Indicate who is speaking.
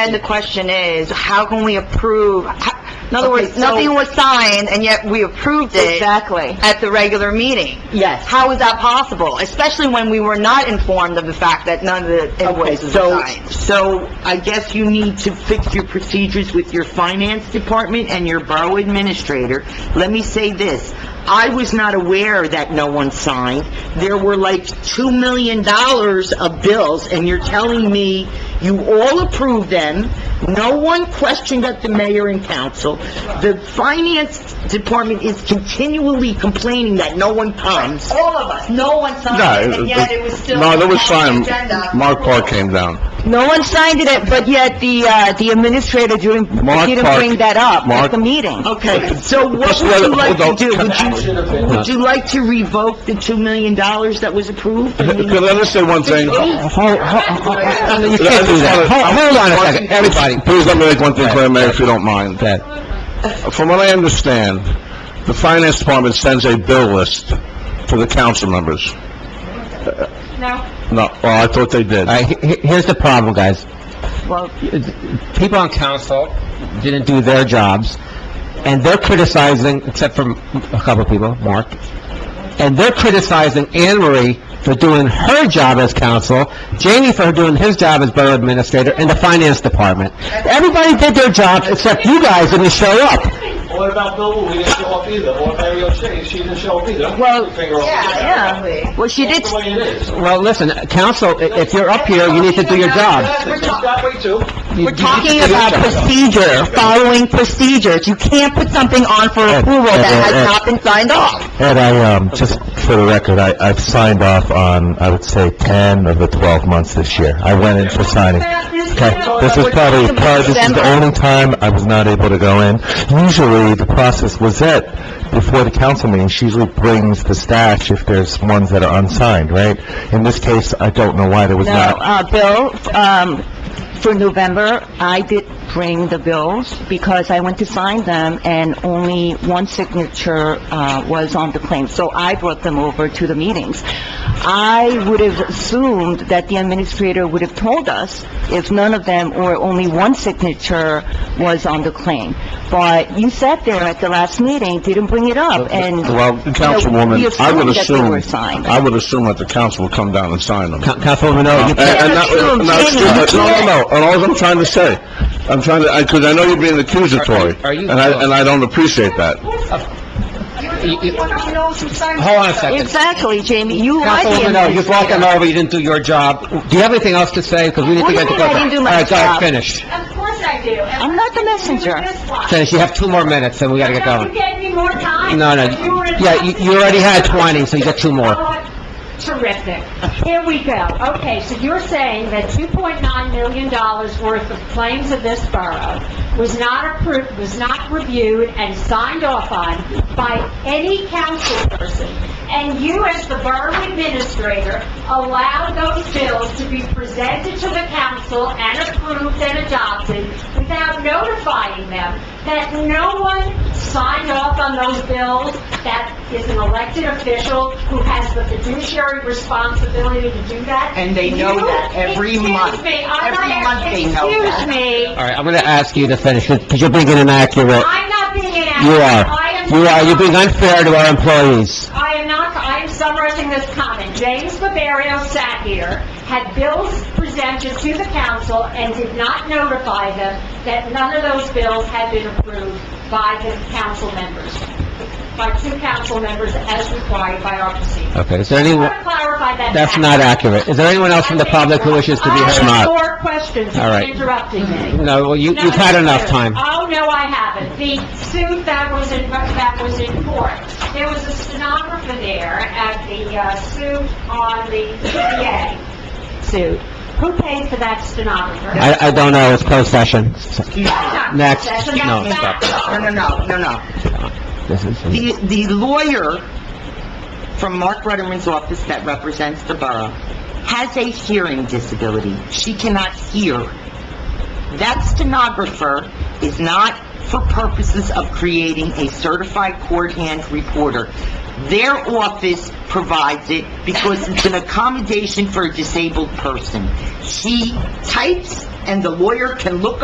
Speaker 1: And the question is, how can we approve, in other words,
Speaker 2: Okay, so-
Speaker 1: nothing was signed, and yet we approved it
Speaker 2: Exactly.
Speaker 1: at the regular meeting.
Speaker 2: Yes.
Speaker 1: How is that possible, especially when we were not informed of the fact that none of the
Speaker 2: Okay,
Speaker 1: invoices were
Speaker 2: so,
Speaker 1: signed?
Speaker 2: so I guess you need to fix your procedures with your finance department and your borough administrator. Let me say this, I was not aware that no one signed. There were like $2 million of bills, and you're telling me you all approved them, no one questioned at the mayor and council. The finance department is continually complaining that no one comes.
Speaker 1: All of us, no one signed
Speaker 3: No,
Speaker 1: it, and yet it was still
Speaker 3: no, there was
Speaker 1: on
Speaker 3: time.
Speaker 1: the agenda.
Speaker 3: Mark Park came down.
Speaker 4: No one signed it, but yet the, uh, the administrator didn't,
Speaker 3: Mark
Speaker 4: didn't
Speaker 3: Park-
Speaker 4: bring that up at
Speaker 3: Mark-
Speaker 4: the meeting.
Speaker 2: Okay, so what
Speaker 3: Just
Speaker 2: would
Speaker 3: let-
Speaker 2: you like to
Speaker 3: hold
Speaker 2: do?
Speaker 3: on.
Speaker 2: Would you, would you like to revoke the $2 million that was approved? I mean,
Speaker 1: Mm-hmm.
Speaker 3: Can I just say one thing?
Speaker 5: Hold, hold, you can't do that. Hold, hold on a second, everybody.
Speaker 3: Please let me make one thing clear, Mayor, if you don't mind.
Speaker 5: Okay.
Speaker 3: From what I understand, the finance department sends a bill list to the council members. No. No, well, I thought they did.
Speaker 5: All right, he- he- here's the problem, guys. People on council didn't do their jobs, and they're criticizing, except for a couple of people, Mark, and they're criticizing Anne Marie for doing her job as council, Jamie for doing his job as borough administrator, and the finance department. Everybody did their jobs, except you guys didn't show up.
Speaker 6: What about Bill Wu? He didn't show up either. Or Mary O'Shea, she didn't show up either. I'm
Speaker 4: Well,
Speaker 6: pointing the finger over there.
Speaker 1: Yeah, yeah.
Speaker 4: Well, she did,
Speaker 6: That's the way it is.
Speaker 5: Well, listen, council, i- if you're up here, you need to do your job.
Speaker 6: That's it. It's that way too.
Speaker 1: We're talking about procedure, following procedures. You can't put something on for approval that has not been signed off.
Speaker 7: Ed, I, um, just for the record, I, I've signed off on, I would say, 10 of the 12 months this year. I went in for signing. Okay, this is probably, probably, this is the only time I was not able to go in. Usually, the process was that before the council meeting, she usually brings the stash if there's ones that are unsigned, right? In this case, I don't know why there was
Speaker 4: no,
Speaker 7: not.
Speaker 4: uh, Bill, um, for November, I did bring the bills because I went to sign them and only one signature, uh, was on the claim. So I brought them over to the meetings. I would have assumed that the administrator would have told us if none of them or only one signature was on the claim. But you sat there at the last meeting, didn't bring it up, and...
Speaker 3: Well,
Speaker 4: We
Speaker 3: Councilwoman, I
Speaker 4: assumed
Speaker 3: would
Speaker 4: that they were
Speaker 3: assume,
Speaker 4: signed.
Speaker 3: I would assume that the council would come down and sign them.
Speaker 5: Coun- Councilwoman Noe, you
Speaker 3: And- and not- and not- excuse me, No, no, no, and all I'm trying to say, I'm trying to, because I know you're being accusatory,
Speaker 5: Are- are you-
Speaker 3: and I, and I don't appreciate that.
Speaker 5: Hold on a second.
Speaker 4: Exactly, Jamie, you are the
Speaker 5: Councilwoman, no, you brought them over, you didn't do your job. Do you have anything else to say? Because we need to
Speaker 4: What do
Speaker 5: get
Speaker 4: you
Speaker 5: the...
Speaker 4: mean I didn't do my
Speaker 5: All right,
Speaker 4: job?
Speaker 5: go ahead, finish.
Speaker 8: Of course I do.
Speaker 4: I'm not the messenger.
Speaker 5: Finish, you have two more minutes, and we gotta get
Speaker 8: You
Speaker 5: going.
Speaker 8: gave me more time.
Speaker 5: No, no,
Speaker 8: You were-
Speaker 5: yeah, you you already had 20, so you got two more.
Speaker 8: Oh, Terrific. Here we go. Okay, so you're saying that $2.9 million worth of claims of this borough was not approved, was not reviewed and signed off on by any council person, and you, as the borough administrator, allowed those bills to be presented to the council and approved and adopted without notifying them that no one signed off on those bills, that is an elected official who has the fiduciary responsibility to do that.
Speaker 2: And they know
Speaker 8: You-
Speaker 2: that every month.
Speaker 8: Excuse me, I'm
Speaker 2: Every
Speaker 8: not-
Speaker 2: month they know that.
Speaker 8: Excuse me,
Speaker 5: All right, I'm gonna ask you to finish, because you're being inaccurate.
Speaker 8: I'm not being inaccurate.
Speaker 5: You
Speaker 8: I
Speaker 5: are.
Speaker 8: am
Speaker 5: You are, you're being
Speaker 8: not-
Speaker 5: unfair to our employees.
Speaker 8: I am not, I am summarizing this comment. James Barbario sat here, had bills presented to the council, and did not notify them that none of those bills had been approved by the council members, by two council members as required by our procedure.
Speaker 5: Okay, is there
Speaker 8: I
Speaker 5: anyone,
Speaker 8: want to clarify that.
Speaker 5: that's
Speaker 8: fact.
Speaker 5: not accurate. Is there anyone else from the public who wishes to be heard?
Speaker 8: I have more questions,
Speaker 5: All
Speaker 8: you're
Speaker 5: right.
Speaker 8: interrupting me.
Speaker 5: No, well, you-
Speaker 8: No,
Speaker 5: you've had
Speaker 8: it's
Speaker 5: enough
Speaker 8: true.
Speaker 5: time.
Speaker 8: Oh, no, I haven't. The suit that was in, that was in court, there was a stenographer there at the uh, suit on the PPA suit. Who paid for that stenographer?
Speaker 5: I, I don't know, it's closed session.
Speaker 8: That's not-
Speaker 5: next.
Speaker 8: that's not
Speaker 5: No,
Speaker 8: fact.
Speaker 2: No, no, no, no, no.
Speaker 5: This is-
Speaker 2: The, the lawyer from Mark Rutterman's office that represents the borough has a hearing disability. She cannot hear. That stenographer is not for purposes of creating a certified court hand reporter. Their office provides it because it's an accommodation for a disabled person. She types and the lawyer can look